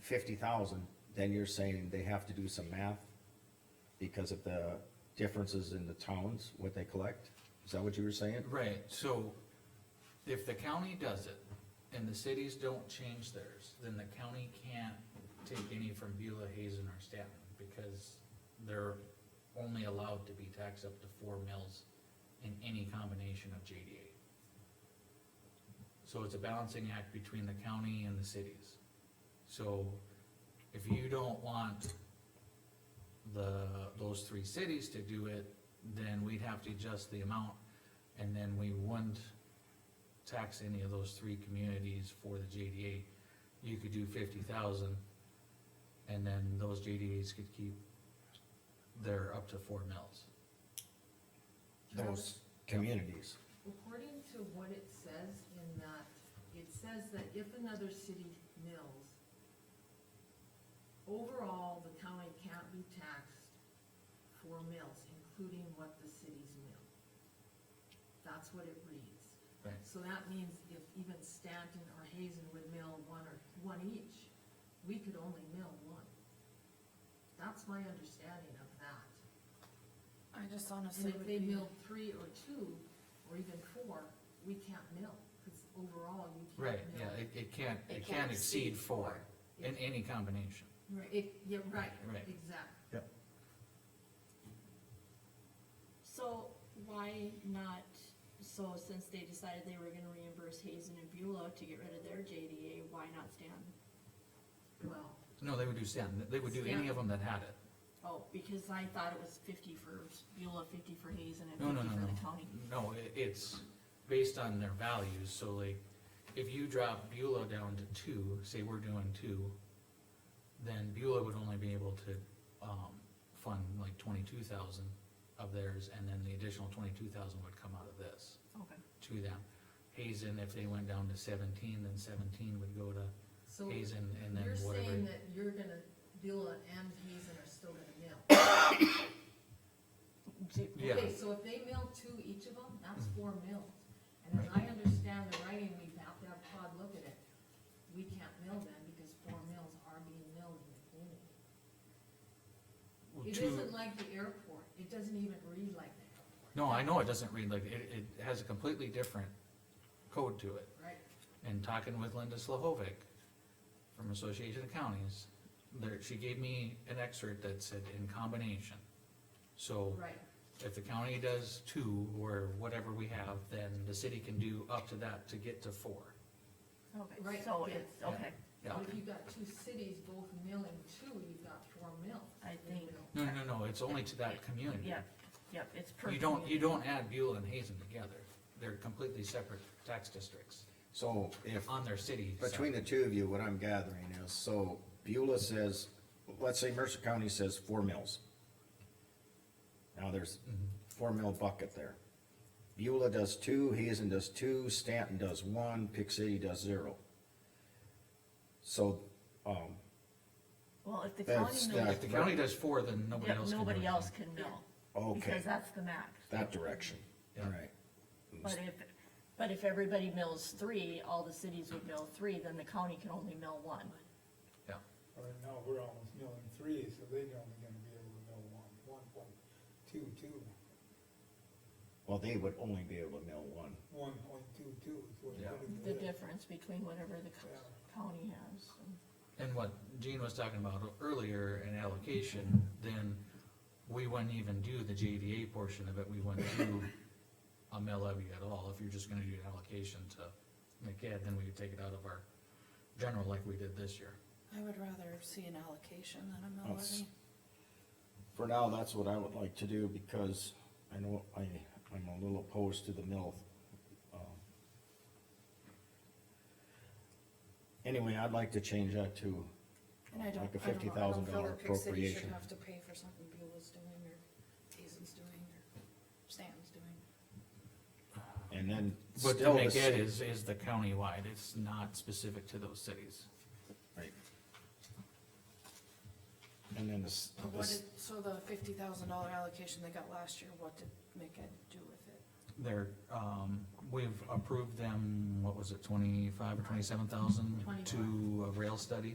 fifty thousand, then you're saying they have to do some math because of the differences in the towns, what they collect? Is that what you were saying? Right, so if the county does it and the cities don't change theirs, then the county can't take any from Beulah, Hazen or Stanton because they're only allowed to be taxed up to four mills in any combination of JDA. So it's a balancing act between the county and the cities. So if you don't want the, those three cities to do it, then we'd have to adjust the amount and then we wouldn't tax any of those three communities for the JDA. You could do fifty thousand, and then those JDAs could keep their up to four mills. Those communities, According to what it says in that, it says that if another city mills, overall, the county can't be taxed for mills, including what the cities mill. That's what it reads. Right. So that means if even Stanton or Hazen would mill one or, one each, we could only mill one. That's my understanding of that. I just And honestly if would they be, mill three or two, or even four, we can't mill, because overall you Right, can't mill. yeah, it, it can't, it can't exceed four in any combination. Right, it, yeah, right, Right. exactly. So why not, so since they decided they were gonna reimburse Hazen and Beulah to get rid of their JDA, why not Stanton? Well, No, they would do Stanton, they would do any of them that had it. Oh, because I thought it was fifty for Beulah, fifty for Hazen, and No, no, fifty no, for no. the county. No, it, it's based on their values, so like, if you drop Beulah down to two, say we're doing two, then Beulah would only be able to, um, fund like twenty-two thousand of theirs, and then the additional twenty-two thousand would come out of this Okay. to them. Hazen, if they went down to seventeen, then seventeen would go to so Hazen, and then you're whatever. saying that you're gonna, Beulah and Hazen are still gonna mill? Yeah, Mm-hmm. Okay, so if they mill two each of them, that's four mills. And as I understand the writing, we have to have Todd look at it. We can't mill them because four mills are being milled in the community. well, It two- isn't like the airport, it doesn't even read like the airport. No, I know it doesn't read like, it, it has a completely different code to it. Right, and talking with Linda Slavovic from Association of Counties, there, she gave me an excerpt that said in combination. So right, if the county does two or whatever we have, then the city can do up to that to get to four. Right, okay, so yeah. it's, okay, Yeah. but if you've got two cities both milling two, you've got four mills. I They think- mill. No, no, no, no, it's only to that community. yep, yep, it's per. You don't, you community. don't add Beulah and Hazen together. They're completely separate tax districts so if on their city. side. Between the two of you, what I'm gathering is, so Beulah says, let's say Mercer County says four mills. Now there's four mill bucket there. Beulah does two, Hazen does two, Stanton does one, Pick City does zero. So, um, Well, if the county That's- mills, If the county does four, then nobody yeah, else can. do nobody anything. else can mill, okay, because that's the max. that direction, all Yeah. right. But if, but if everybody mills three, all the cities would mill three, then the county can only mill one. Yeah. Right now, we're almost milling three, so they're only gonna be able to mill one, one, one, two, two, Well, they would only be able to mill one. one point two, two is what Yeah. it The is. difference between whatever the co- county has. And what Gene was talking about earlier in allocation, then we wouldn't even do the JDA portion of it, we wouldn't do a mill levy at all, if you're just gonna do an allocation to McCad, then we could take it out of our general like we did this year. I would rather see an allocation than a mill That's- levy. For now, that's what I would like to do, because I know I, I'm a little opposed to the mill. um. Anyway, I'd like to change that to uh, And I don't, like a I don't fifty know, I don't thousand feel dollar that Pick City should appropriation. have to pay for something Beulah's doing or Hazen's doing or Stanton's doing. And then But the still the McCad city. is, is the countywide, it's not specific to those cities. right. And then this, But what this, did, so the fifty thousand dollar allocation they got last year, what did McEd do with it? They're, um, we've approved them, what was it, twenty-five or twenty-seven thousand to a rail study?